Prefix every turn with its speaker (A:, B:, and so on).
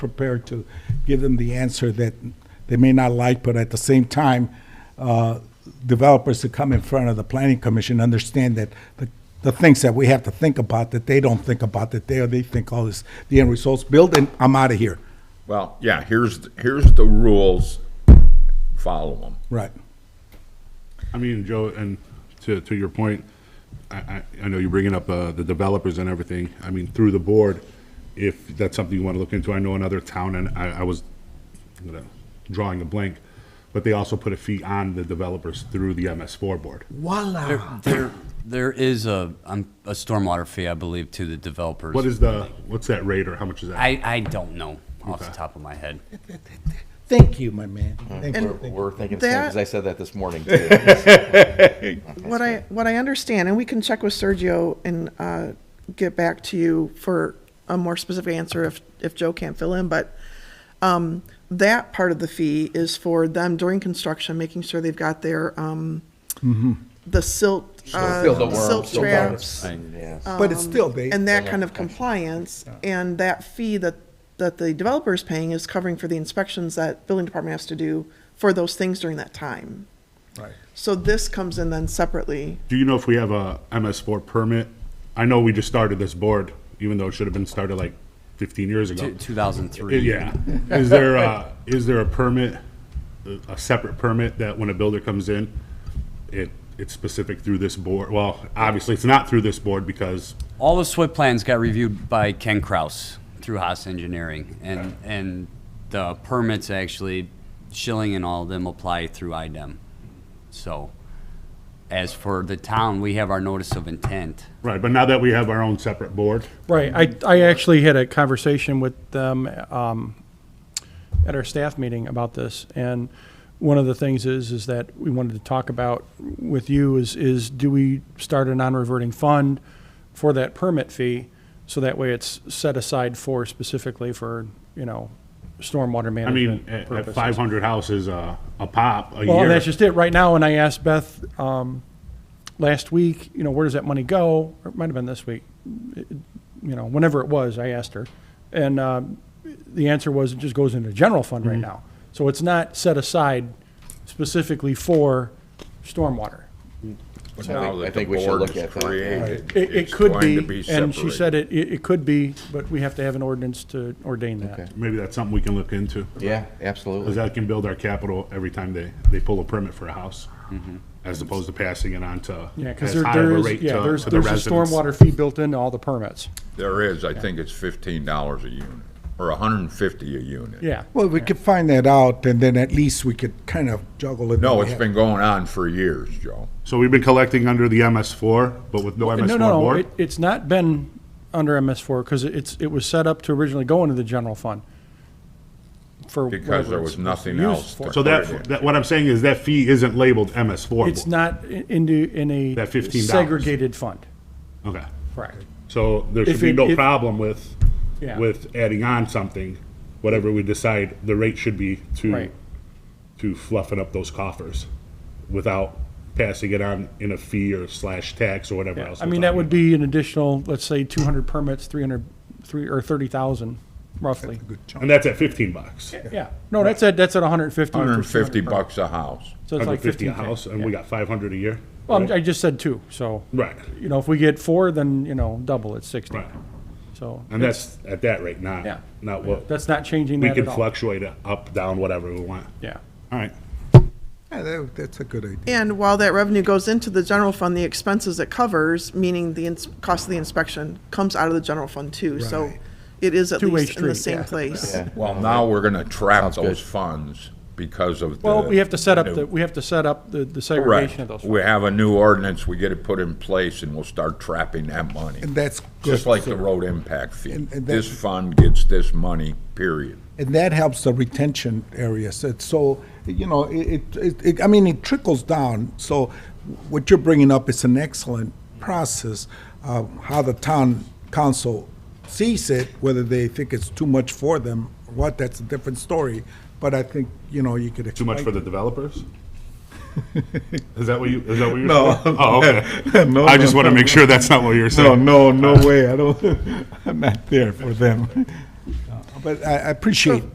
A: prepared to give them the answer that they may not like, but at the same time, uh, developers who come in front of the planning commission understand that the, the things that we have to think about, that they don't think about, that they, they think, oh, this, the end result's built and I'm out of here.
B: Well, yeah, here's, here's the rules, follow them.
A: Right.
C: I mean, Joe, and to, to your point, I, I, I know you're bringing up, uh, the developers and everything. I mean, through the board, if that's something you want to look into, I know another town, and I, I was I'm gonna- drawing a blank, but they also put a fee on the developers through the MS four board.
A: Voila.
D: There- There, there is a, um, a stormwater fee, I believe, to the developers.
C: What is the, what's that rate or how much is that?
D: I, I don't know off the top of my head.
A: Thank you, my man.
B: Mm-hmm.
A: Thank you.
E: And
F: We're thinking the same, because
E: That-
F: I said that this morning, too.
E: what I, what I understand, and we can check with Sergio and uh, get back to you for a more specific answer if, if Joe can't fill in, but um, that part of the fee is for them during construction, making sure they've got their, um, the silt, uh,
F: Still the worm,
E: silt
F: still the worm.
E: traps.
F: Yeah.
A: But it's still, they,
E: um, And that kind of compliance, and that fee that, that the developer's paying is covering for the inspections that building department has to do for those things during that time.
A: Right.
E: So this comes in then separately.
C: Do you know if we have a MS four permit? I know we just started this board, even though it should have been started like fifteen years ago.
D: Two- 2003.
C: Yeah. Is there a, is there a permit, a separate permit that when a builder comes in, it, it's specific through this board? Well, obviously, it's not through this board because,
D: All the SWIP plans got reviewed by Ken Kraus through Haas Engineering, and, and the permits actually, Schilling and all of them apply through IDEM. So, as for the town, we have our notice of intent.
C: right, but now that we have our own separate board,
G: Right, I, I actually had a conversation with them um, at our staff meeting about this, and one of the things is, is that we wanted to talk about with you is, is do we start a non-reverting fund for that permit fee? So that way it's set aside for specifically for, you know, stormwater
C: I mean,
G: management
C: at
G: purposes.
C: five hundred houses, uh, a pop, a
G: Well, and
C: year.
G: that's just it. Right now, and I asked Beth um, last week, you know, where does that money go? Or it might have been this week, It- you know, whenever it was, I asked her. And um, the answer was it just goes into the general fund
C: Mm-hmm.
G: right now. So it's not set aside specifically for stormwater.
B: But now
F: think- I
B: that the
F: think we should
B: board
F: look
B: is
F: at that.
B: created,
G: It, it
B: it's
G: could
B: going to
G: be,
B: be
G: and she said
B: separated.
G: it, it it could be, but we have to have an ordinance to ordain that.
C: Maybe that's something we can look into.
F: Yeah,
C: Because
F: absolutely.
C: that can build our capital every time they, they pull a permit for a house,
F: Mm-hmm.
C: as opposed to passing it on to.
G: Yeah, because
C: as
G: there,
C: high of a
G: there
C: rate
G: is, yeah,
C: to-
G: there's,
C: to the
G: there's a
C: residents.
G: stormwater fee built into all the permits.
B: There is, I think it's fifteen dollars a unit, or hundred and fifty a unit.
G: Yeah.
A: well, we could find that out and then at least we could kind of juggle it.
B: No,
A: We
B: it's
A: have-
B: been going on for years, Joe.
C: So we've been collecting under the MS four, but with no MS
G: No,
C: four
G: no, no,
C: board?
G: it, it's not been under MS four, because it's, it was set up to originally go into the general fund. for
B: Because there
G: whatever
B: was
G: it's
B: nothing
G: used
B: else
G: for.
B: to-
C: So that, that, what I'm saying is that fee isn't labeled MS four.
G: It's not i- into, in a
C: That $15.
G: segregated fund,
C: Okay.
G: correct.
C: So there should
G: If
C: be
G: it-
C: no
G: if-
C: problem with,
G: Yeah.
C: with adding on something, whatever we decide the rate should be to,
G: Right.
C: to fluffing up those coffers without passing it on in a fee or slash tax or whatever
G: Yeah,
C: else.
G: I
C: we're
G: mean, that
C: talking
G: would be an additional, let's say, two hundred permits, three hundred, three, or thirty thousand, roughly.
C: about. And that's at fifteen bucks.
G: Yeah, no, that's at, that's at hundred and fifty.
B: Hundred and fifty bucks a house.
G: So it's like
C: 150
G: fifteen
C: a house, and we got five hundred a year.
G: Well, I'm- I just said two, so,
C: Right,
G: you know, if we get four, then, you know, double, it's sixty,
C: right.
G: so.
C: And that's at that rate, not,
G: Yeah.
C: not what,
G: That's not changing
C: we
G: that
C: can
G: at all.
C: fluctuate it up, down, whatever we want.
G: Yeah.
C: All right.
A: Yeah, that- that's a good idea.
E: And while that revenue goes into the general fund, the expenses it covers, meaning the ins- cost of the inspection, comes out of the general fund too. So
A: Right.
E: it is at
G: Two-way
E: least in the
G: street,
E: same
G: yeah.
E: place.
F: Yeah.
B: Well, now we're gonna trap
F: Sounds good.
B: those funds because of the.
G: Well, we have to set up,
B: new-
G: the we have to set up the the
B: Correct.
G: segregation of those.
B: We have a new ordinance, we get it put in place, and we'll start trapping that money.
A: And that's
B: Just
A: good.
B: like the road impact fee.
A: And- and that-
B: This fund gets this money, period.
A: And that helps the retention areas. It's so, you know, it, it- it, it, I mean, it trickles down. So what you're bringing up is an excellent process, uh, how the town council sees it, whether they think it's too much for them, or what, that's a different story. But I think, you know, you could
C: Too
A: explain.
C: much for the developers? Is that what you, is that what you're? No. Oh, okay.
A: No,
C: I just
A: no,
C: want
A: no.
C: to make sure that's not what you're
A: No,
C: saying.
A: no, no way. I don't, I'm not there for them. But I I appreciate